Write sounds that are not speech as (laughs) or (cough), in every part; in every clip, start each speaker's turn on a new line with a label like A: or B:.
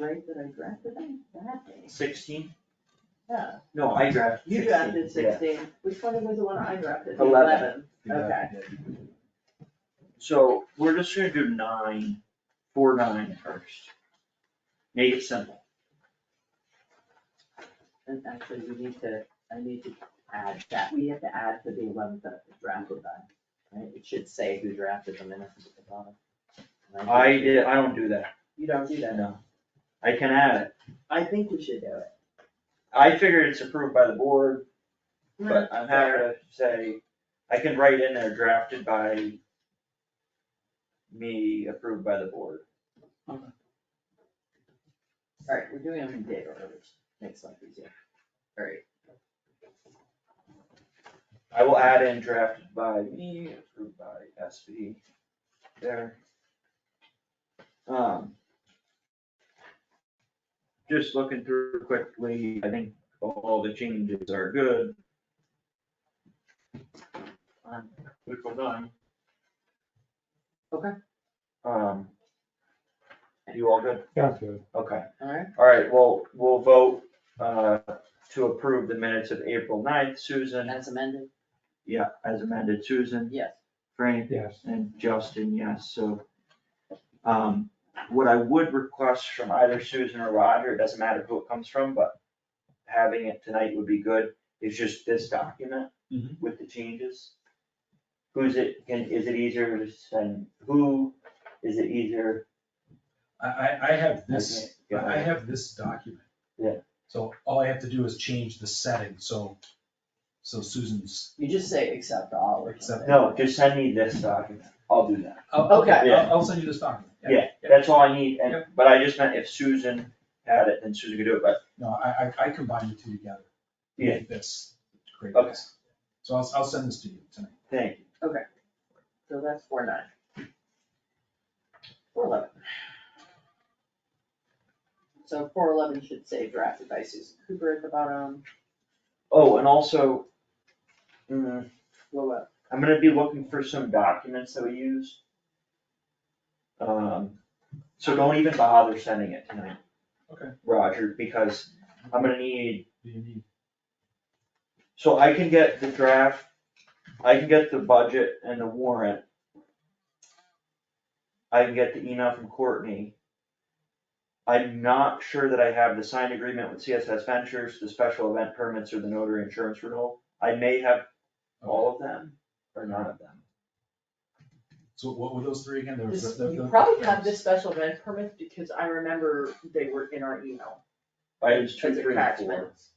A: right, that I drafted them that day?
B: Sixteen?
A: Yeah,
B: No, I drafted
A: you
B: sixteen.
A: drafted
B: yeah.
A: sixteen, which one was the one I drafted? The
B: Eleven.
A: Okay,
B: So we're just gonna do nine, four nine first. Make it simple.
A: and actually, we need to, I need to add that, we have to add to the eleventh that it was drafted by, right? It should say who drafted the minutes at the bottom. And
B: I did, I don't do that.
A: You don't do that,
B: No. I can add it.
A: I think we should do it.
B: I figured it's approved by the board,
C: Hmm.
B: but I'm happy to say, I can write in there drafted by me, approved by the board.
A: Alright, we're doing them in date order, which makes life easier. Alright,
B: I will add in drafted by me, approved by SB, there. Um. Just looking through quickly, I think all the changes are good.
A: Um,
B: Which one done?
A: Okay.
B: Um. You all good?
D: Sounds good.
B: Okay.
A: alright,
B: All right, well, we'll vote, uh, to approve the minutes of April 9th. Susan,
A: as amended,
B: yeah, as amended, Susan,
A: yes.
B: Frank,
D: Yes.
B: and Justin, yes, so. Um, what I would request from either Susan or Roger, it doesn't matter who it comes from, but having it tonight would be good, is just this document
D: Mhm.
B: with the changes. Who's it, can, is it easier to send, who, is it easier?
D: I, I, I have this,
B: Okay, yeah.
D: I have this document.
B: Yeah.
D: So all I have to do is change the setting, so, so Susan's.
A: You just say accept all or
D: Accept.
A: something.
B: No, just send me this document, I'll do that.
D: I'll-
A: Okay.
D: I'll, I'll send you this document.
B: Yeah, that's all I need, and,
D: Yep.
B: but I just meant if Susan had it, then Susan could do it, but,
D: No, I, I, I combine the two together. to
B: Yeah.
D: make This, to create
B: Okay.
D: this. So I'll, I'll send this to you tonight.
B: thank you.
A: So that's four nine. Four eleven. So four eleven should say drafted by Susan Cooper at the bottom,
B: Oh, and also, mm,
A: blow up,
B: I'm gonna be looking for some documents that we use. Um, so don't even bother sending it tonight.
D: Okay.
B: Roger, because I'm gonna need,
D: Do you need?
B: so I can get the draft, I can get the budget and the warrant. I can get the email from Courtney. I'm not sure that I have the signed agreement with CSS Ventures, the special event permits or the notary insurance renewal. I may have all of them or none of them.
D: So what were those three again? There was
C: This,
D: the- the-
C: you
D: the-
C: probably have this special event permit because I remember they were in our email.
B: Items two,
C: as
B: three, and four.
C: attachments.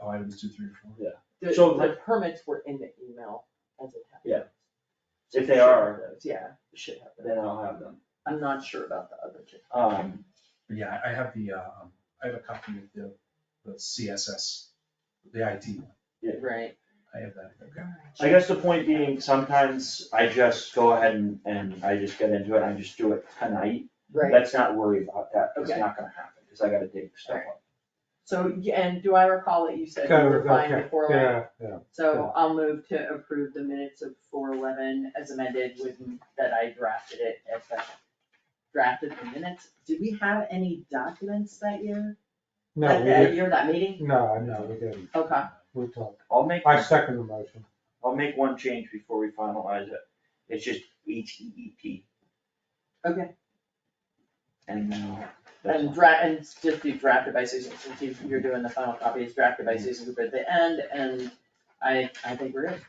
D: Oh, items two, three, and four.
C: The,
B: So
C: the permits were in the email as attachments.
B: Yeah. If they are,
C: Yeah, you should have that.
B: then I'll have them.
C: I'm not sure about the other two.
B: Um,
D: But yeah, I I have the, uh, um, I have a copy of the, the CSS, the IT one.
A: right?
D: I have that. Okay.
B: I guess the point being, sometimes I just go ahead and, and I just get into it, I just do it tonight.
C: Right,
B: Let's not worry about that, 'cause it's
C: Okay.
B: not gonna happen, cause I gotta dig stuff up.
C: so, yeah, and do I recall that you said you were fine with four eleven? So I'll move to approve the minutes of four eleven as amended with, that I drafted it as the drafted the minutes. Did we have any documents that year?
E: No,
C: That-
E: we
C: That
E: didn't,
C: year, that meeting?
E: no, no, we didn't,
C: Okay,
E: we talked,
B: I'll make,
E: I second the motion,
B: I'll make one change before we finalize it. It's just H E E P.
C: Okay.
B: And now. that's
C: And
B: all.
C: dra, and just be drafted by Susan, since you- you're doing the final copy, it's drafted
E: Mm-hmm.
C: by Susan Cooper at the end, and I, I think we're good.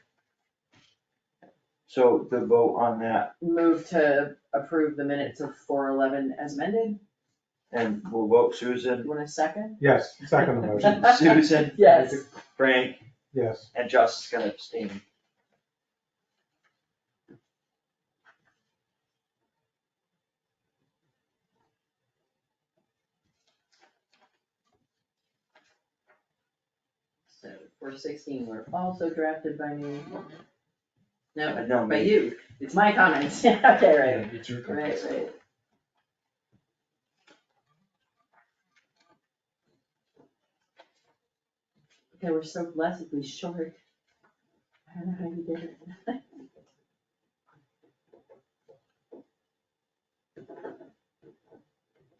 B: So the vote on that,
C: Move to approve the minutes of four eleven as amended,
B: and we'll vote
C: you
B: Susan,
C: want a second?
E: yes, second
B: (laughs)
E: the motion,
B: Susan,
C: Yes.
B: Frank,
E: yes,
B: and Justin's gonna abstain.
C: So four sixteen were also drafted by me. No,
B: No,
C: by
B: me.
C: you, it's my comments, yeah, (laughs) okay, right,
D: Yeah, It's your
C: right, right. Okay, we're so blessed, we short. I don't know how you did it.